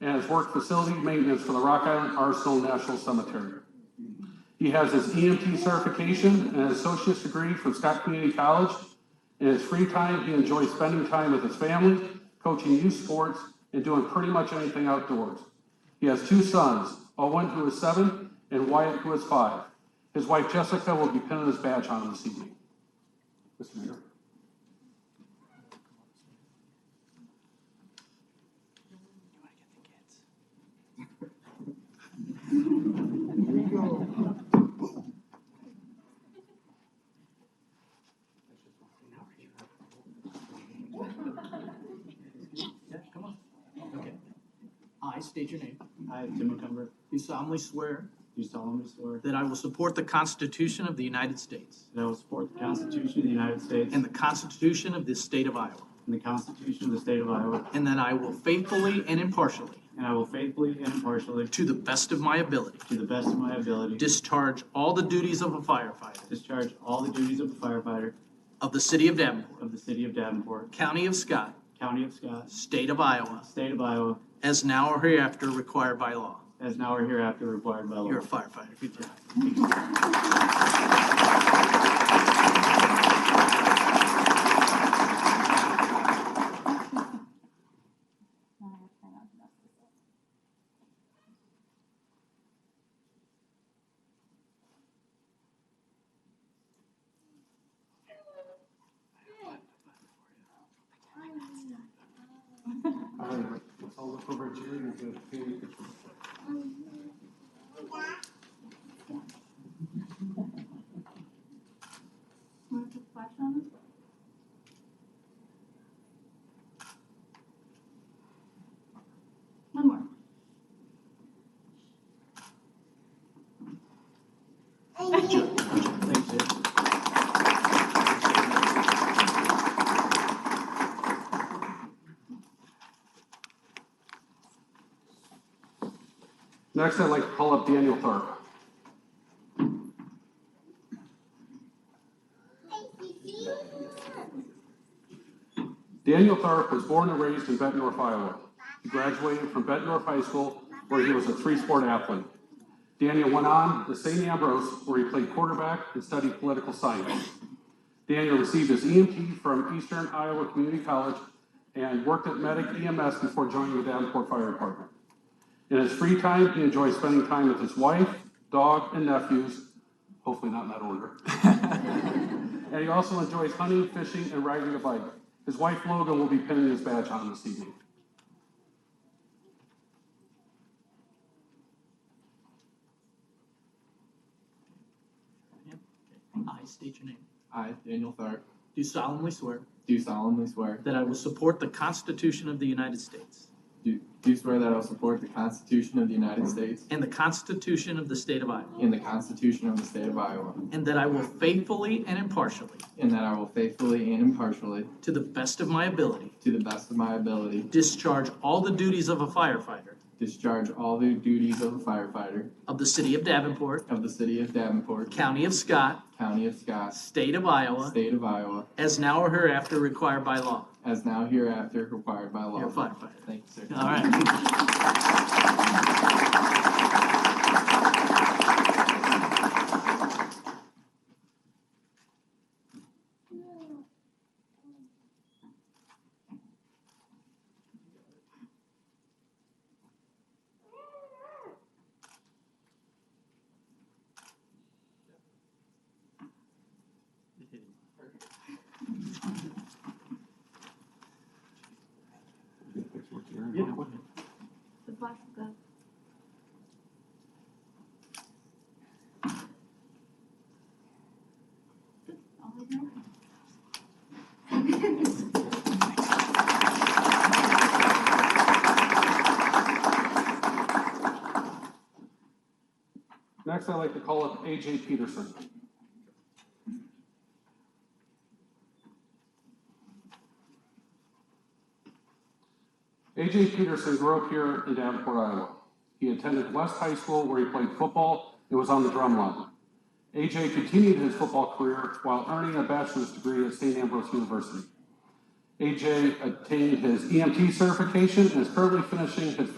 and has worked facility maintenance for the Rock Island Arsenal National Cemetery. He has his EMT certification and an associate's degree from Scott Community College. In his free time, he enjoys spending time with his family, coaching youth sports, and doing pretty much anything outdoors. He has two sons, Owen, who is seven, and Wyatt, who is five. His wife Jessica will be pinning his badge on him this evening. Mr. Mayor. Yeah, come on. Okay. I state your name. I, Tim McCumber. Do solemnly swear Do solemnly swear that I will support the Constitution of the United States that I will support the Constitution of the United States and the Constitution of this state of Iowa, and the Constitution of the State of Iowa, and that I will faithfully and impartially, and I will faithfully and impartially, to the best of my ability, to the best of my ability, discharge all the duties of a firefighter discharge all the duties of a firefighter of the city of Davenport, of the City of Davenport, county of Scott, County of Scott, state of Iowa, State of Iowa, as now or hereafter required by law. as now or hereafter required by law. You're a firefighter. Good job. No, I'm trying not to mess this up. All right, let's all look over at Jerry and get a family picture. Want to put flash on? One more. Thanks, Jim. Next, I'd like to call up Daniel Tharp. Daniel Tharp was born and raised in Bettendorf, Iowa. He graduated from Bettendorf High School, where he was a three-sport athlete. Daniel went on to St. Ambrose, where he played quarterback and studied political science. Daniel received his EMT from Eastern Iowa Community College and worked at Medic EMS before joining the Davenport Fire Department. In his free time, he enjoys spending time with his wife, dog, and nephews, hopefully not in that order. and he also enjoys hunting, fishing, and riding a bike. His wife Logan will be pinning his badge on this evening. Yeah. I state your name. I, Daniel Tharp, Do solemnly swear do solemnly swear, that I will support the Constitution of the United States do, do swear that I will support the Constitution of the United States and the Constitution of the state of Iowa, and the Constitution of the State of Iowa, and that I will faithfully and impartially, and that I will faithfully and impartially, to the best of my ability, to the best of my ability, discharge all the duties of a firefighter discharge all the duties of a firefighter of the city of Davenport, of the City of Davenport, county of Scott, County of Scott, state of Iowa, State of Iowa, as now or hereafter required by law. as now hereafter required by law. You're a firefighter. Thank you, sir. All right. The flash will go. Good, all the way down. Next, I'd like to call up AJ Peterson. AJ Peterson grew up here in Davenport, Iowa. He attended West High School where he played football and was on the drum line. AJ continued his football career while earning a bachelor's degree at St. Ambrose E University. AJ obtained his EMT certification and is currently finishing his